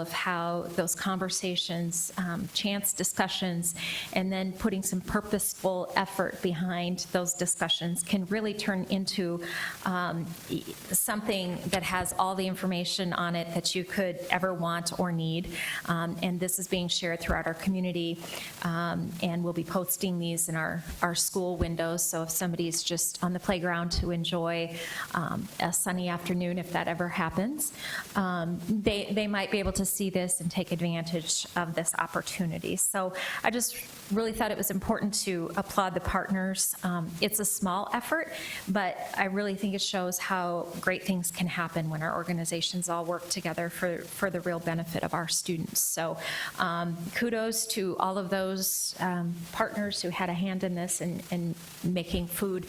of how those conversations, um, chance discussions, and then putting some purposeful effort behind those discussions can really turn into um, e- something that has all the information on it that you could ever want or need. Um, And this is being shared throughout our community, um, and we'll be posting these in our, our school windows. So if somebody's just on the playground to enjoy um, a sunny afternoon, if that ever happens, um, they, they might be able to see this and take advantage of this opportunity. So I just really thought it was important to applaud the partners. Um, It's a small effort, but I really think it shows how great things can happen when our organizations all work together for, for the real benefit of our students. So um, kudos to all of those um, partners who had a hand in this and, and making food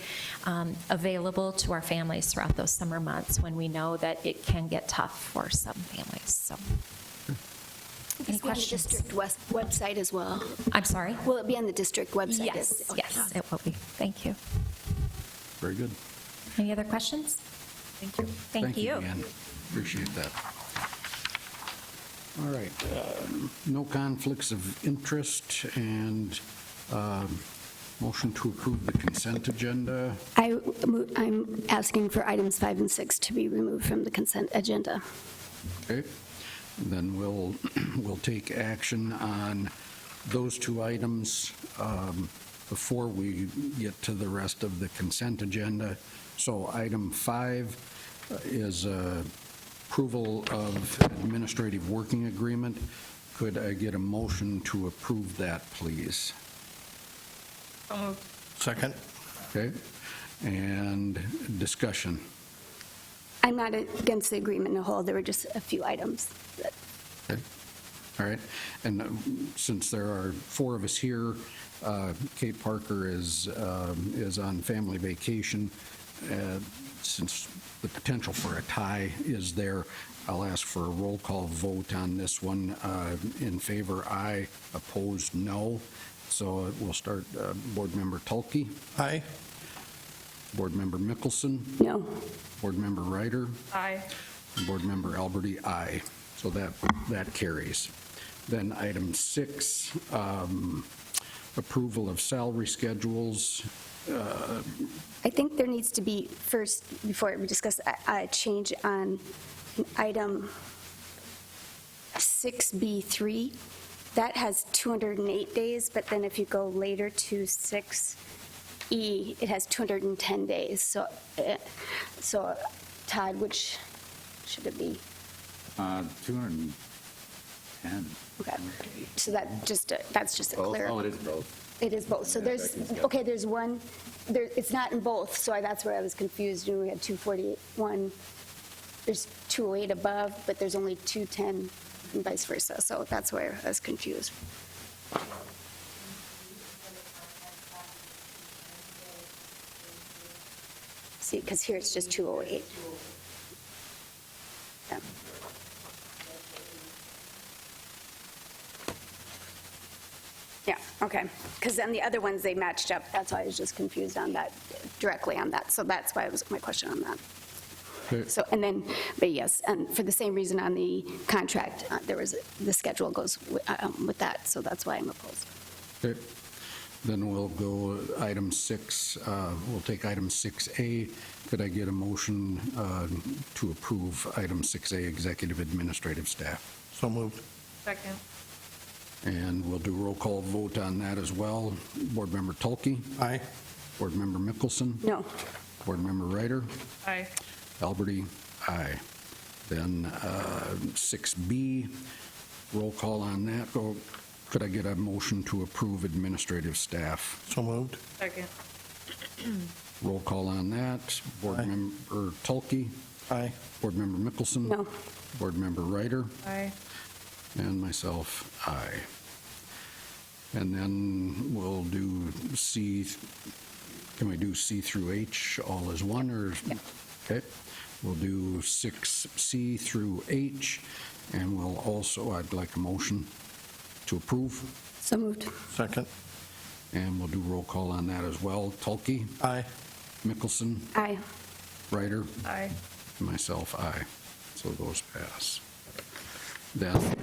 um, available to our families throughout those summer months when we know that it can get tough for some families, so. Any It's on the questions? district west- website as well? I'm sorry? Will it be on the district website? Yes, Okay. yes, it will be. Thank you. Very good. Any other questions? Thank you. Thank you. Ann. Appreciate that. All right, um, no conflicts of interest and um, motion to approve the consent agenda. I, mo- I'm asking for items five and six to be removed from the consent agenda. Okay, then we'll, we'll take action on those two items um, before we get to the rest of the consent agenda. So item five is uh, approval of administrative working agreement. Could I get a motion to approve that, please? Second? Okay, and discussion. I'm not against the agreement in a whole, there were just a few items. that- Okay. All right, and um, since there are four of us here, uh, Kate Parker is, um, is on family vacation. Uh, Since the potential for a tie is there, I'll ask for a roll call vote on this one. Uh, In favor, aye. Opposed, no. So we'll start, uh, Board Member Tulkey, Aye. Board Member Mickelson, No, Board Member Ryder, Aye. Board Member Alberti, aye. So that, that carries. Then item six, um, approval of salary schedules. I think there needs to be, first, before we discuss, a- a change on item 6B3. That has 208 days, but then if you go later to 6E, it has 210 days. So, eh, so Todd, which should it be? Uh, 210. Okay. So that just, a- that's just a Both? clear. Oh, it is both. It is both. So Yeah, there's, second schedule. okay, there's one, there, it's not in both, so I- that's where I was confused. You know, We had 241, there's 208 above, but there's only 210 and vice versa. So that's where I was confused. See, because here it's just 208. Yeah. Yeah, okay. Because then the other ones, they matched up. That's why I was just confused on that, directly on that. So that's why it was my question on that. Okay. So, and then, but yes, and for the same reason on the contract, uh, there was, the schedule goes wi- um, with that, so that's why I'm opposed. Okay. Then we'll go item six, uh, we'll take item 6A. Could I get a motion uh, to approve item 6A, executive administrative staff? So moved. Second. And we'll do roll call vote on that as well. Board Member Tulkey, Aye. Board Member Mickelson, No, Board Member Ryder, Aye. Alberti, aye. Then uh, 6B, roll call on that. Go- Could I get a motion to approve administrative staff? So moved. Second. Roll call on that. Board Aye. Member Tulkey, Aye. Board Member Mickelson. No. Board Member Ryder, Aye. and myself, aye. And then we'll do C, can we do C through H all as one, or? Okay, we'll do 6C through H, and we'll also, I'd like a motion to approve, so moved. Second? and we'll do roll call on that as well. Tulkey, Aye. Mickelson, Aye. Ryder, Aye. myself, aye. So those pass. Then